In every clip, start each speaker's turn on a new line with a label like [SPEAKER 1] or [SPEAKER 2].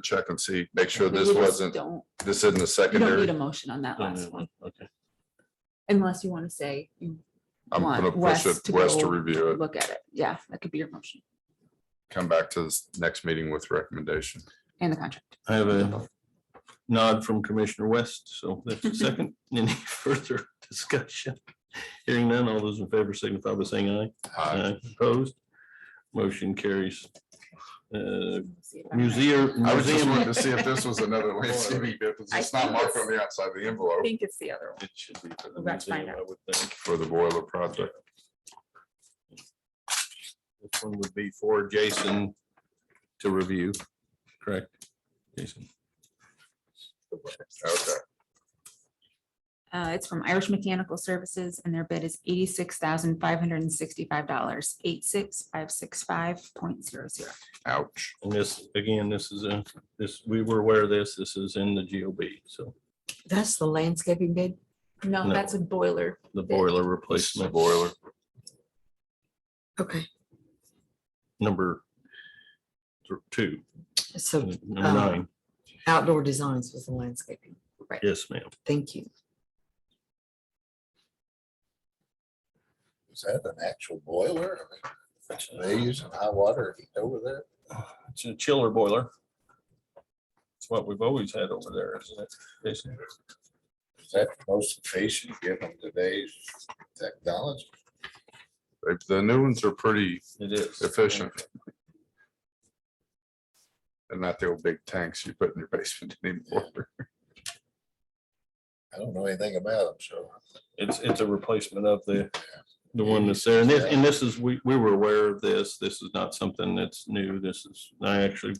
[SPEAKER 1] check and see, make sure
[SPEAKER 2] We
[SPEAKER 1] this
[SPEAKER 2] just
[SPEAKER 1] wasn't,
[SPEAKER 2] Don't,
[SPEAKER 1] this isn't a
[SPEAKER 2] you don't need
[SPEAKER 1] secondary.
[SPEAKER 2] a motion on that
[SPEAKER 3] No, no,
[SPEAKER 2] last one,
[SPEAKER 3] Okay.
[SPEAKER 2] unless you want to say you
[SPEAKER 1] I'm gonna
[SPEAKER 2] want
[SPEAKER 1] push
[SPEAKER 2] Wes
[SPEAKER 1] it,
[SPEAKER 2] to
[SPEAKER 1] Wes to
[SPEAKER 2] go
[SPEAKER 1] review it,
[SPEAKER 2] look at it. Yeah, that could be your motion
[SPEAKER 1] come back to this next meeting with recommendation.
[SPEAKER 2] and the contract.
[SPEAKER 3] I have a nod from Commissioner West, so that's a second. Any further discussion? Hearing none, all those in favor signify by saying aye.
[SPEAKER 1] Uh,
[SPEAKER 3] Opposed? Motion carries. Uh,
[SPEAKER 2] See if I'm right.
[SPEAKER 3] Museum.
[SPEAKER 1] I was just
[SPEAKER 3] museum-
[SPEAKER 1] wanting to see if this was another landscaping, bid, because
[SPEAKER 2] I
[SPEAKER 1] it's not
[SPEAKER 2] think
[SPEAKER 1] marked on
[SPEAKER 2] it's-
[SPEAKER 1] the outside of the
[SPEAKER 2] I
[SPEAKER 1] envelope
[SPEAKER 2] think it's the other one.
[SPEAKER 3] It should be for the
[SPEAKER 2] We'll have to find
[SPEAKER 3] museum, I would think.
[SPEAKER 1] for the boiler project.
[SPEAKER 3] This one would be for Jason to review, correct? Jason,
[SPEAKER 1] Okay,
[SPEAKER 2] Uh, it's from Irish Mechanical Services and their bid is eighty-six thousand five hundred and sixty-five dollars, eight six five six five point zero zero.
[SPEAKER 1] ouch.
[SPEAKER 3] and this, again, this is a, this, we were aware of this, this is in the GOB, so
[SPEAKER 4] That's the landscaping bid.
[SPEAKER 2] No,
[SPEAKER 3] No.
[SPEAKER 2] that's a boiler.
[SPEAKER 3] the boiler
[SPEAKER 1] It's the
[SPEAKER 3] replacement.
[SPEAKER 1] boiler.
[SPEAKER 4] Okay,
[SPEAKER 3] number th- two,
[SPEAKER 4] so
[SPEAKER 3] number
[SPEAKER 4] uh,
[SPEAKER 3] nine.
[SPEAKER 4] outdoor designs was the landscaping.
[SPEAKER 3] Yes, ma'am.
[SPEAKER 4] Thank you.
[SPEAKER 5] Is that an actual boiler? I mean, They use high water heat over there?
[SPEAKER 3] It's a chiller boiler. It's what we've always had over there, isn't it? Jason?
[SPEAKER 5] Is that the most efficient given today's technology?
[SPEAKER 1] They- The new ones are pretty
[SPEAKER 3] It is.
[SPEAKER 1] efficient. And not the old big tanks you put in your basement anymore.
[SPEAKER 5] I don't know anything about them, so.
[SPEAKER 3] It's, it's a replacement of the, the one that's there. And this, and this is, we, we were aware of this. This is not something that's new. This is, I actually,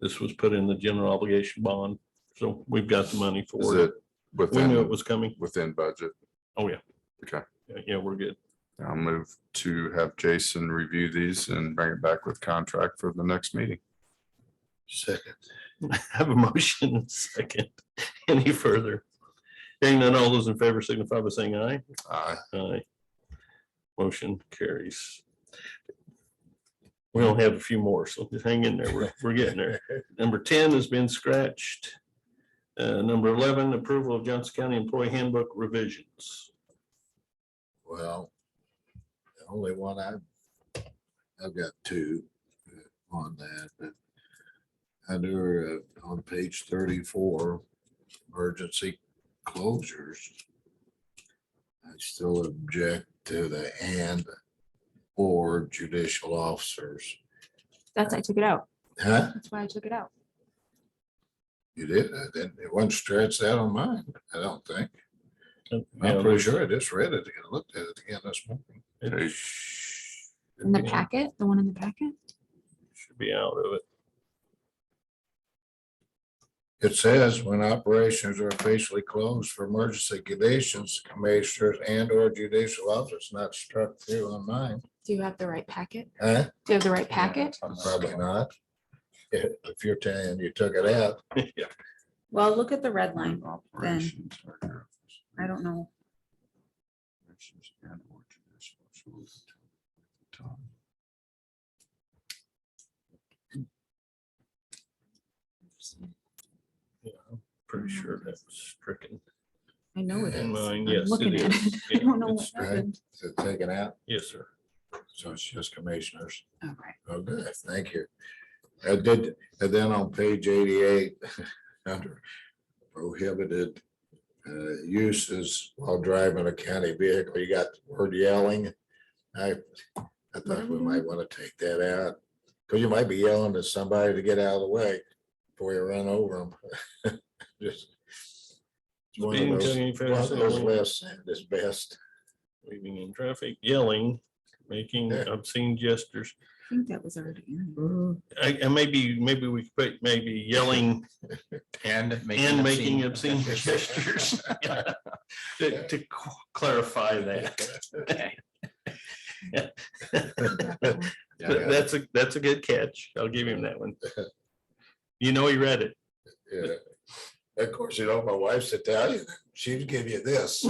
[SPEAKER 3] this was put in the general obligation bond. So we've got the money
[SPEAKER 1] Is
[SPEAKER 3] for
[SPEAKER 1] it
[SPEAKER 3] it. We knew it
[SPEAKER 1] within,
[SPEAKER 3] was coming.
[SPEAKER 1] within budget?
[SPEAKER 3] Oh, yeah.
[SPEAKER 1] Okay.
[SPEAKER 3] Yeah, we're good.
[SPEAKER 1] I'll move to have Jason review these and bring it back with contract for the next meeting.
[SPEAKER 5] Second.
[SPEAKER 3] Have a motion and second. Any further? Hearing none, all those in favor signify by saying aye.
[SPEAKER 1] Aye.
[SPEAKER 3] Aye. Motion carries. We only have a few more, so just hang in there. We're, we're getting there. Number ten has been scratched. Uh, number eleven, approval of Johnson County Employee Handbook revisions.
[SPEAKER 5] Well, the only one I, I've got two uh, on that, but under, uh, on page thirty-four, emergency closures. I still object to the and or judicial officers.
[SPEAKER 2] That's, I took it out.
[SPEAKER 5] Huh?
[SPEAKER 2] That's why I took it out.
[SPEAKER 5] You did? I didn't, it wasn't stretched out on mine, I don't think.
[SPEAKER 3] Uh,
[SPEAKER 5] I'm pretty sure I just read it and looked at it again this morning.
[SPEAKER 3] It
[SPEAKER 2] In the
[SPEAKER 3] Yeah.
[SPEAKER 2] packet, the one in the packet?
[SPEAKER 3] Should be out of it.
[SPEAKER 5] It says when operations are officially closed for emergency conditions, commissioners and or judicial office not struck through on mine.
[SPEAKER 2] Do you have the right packet?
[SPEAKER 5] Huh?
[SPEAKER 2] Do you have the right packet?
[SPEAKER 5] Probably not. If if you're telling you took it out,
[SPEAKER 3] Yeah.
[SPEAKER 2] Well, look at the red line.
[SPEAKER 1] Operations are your office.
[SPEAKER 2] I don't know.
[SPEAKER 1] Operations and or judicial officers.
[SPEAKER 3] Yeah, I'm Pretty sure that was stricken.
[SPEAKER 2] I know it is.
[SPEAKER 3] In mine,
[SPEAKER 2] I'm
[SPEAKER 3] yes,
[SPEAKER 2] Looking
[SPEAKER 3] it
[SPEAKER 2] at it.
[SPEAKER 3] is.
[SPEAKER 2] I
[SPEAKER 3] Yeah,
[SPEAKER 2] don't know what
[SPEAKER 3] it's-
[SPEAKER 5] right.
[SPEAKER 2] happened.
[SPEAKER 5] is it taken out?
[SPEAKER 3] Yes, sir.
[SPEAKER 5] So it's just commissioners.
[SPEAKER 2] Okay.
[SPEAKER 5] Oh, good, thank you. I did, and then on page eighty-eight, under prohibited uh, uses while driving a county vehicle, you got the word yelling. I, I thought we might want to take that out, because you might be yelling at somebody to get out of the way before you run over them. Just it's one
[SPEAKER 3] Speeding,
[SPEAKER 5] of those,
[SPEAKER 3] taking
[SPEAKER 5] one of
[SPEAKER 3] photos,
[SPEAKER 5] those
[SPEAKER 3] all-
[SPEAKER 5] less, is best.
[SPEAKER 3] Leaving in traffic, yelling, making
[SPEAKER 5] Yeah.
[SPEAKER 3] obscene gestures.
[SPEAKER 2] I think that was already in.
[SPEAKER 4] Mhm.
[SPEAKER 3] I- And maybe, maybe we could, put maybe yelling
[SPEAKER 6] And making.
[SPEAKER 3] and making obscene gestures. To to qu- clarify that. But
[SPEAKER 5] Yeah.
[SPEAKER 3] That's a, that's a good catch. I'll give him that one. You know, he read it.
[SPEAKER 5] Yeah. Of course, you know, my wife's Italian. She'd give you this.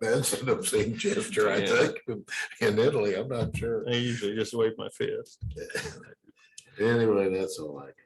[SPEAKER 5] That's an obscene gesture, I
[SPEAKER 3] Yeah.
[SPEAKER 5] think, in Italy. I'm not sure.
[SPEAKER 3] I usually just wave my fist.
[SPEAKER 5] Anyway, that's all I got.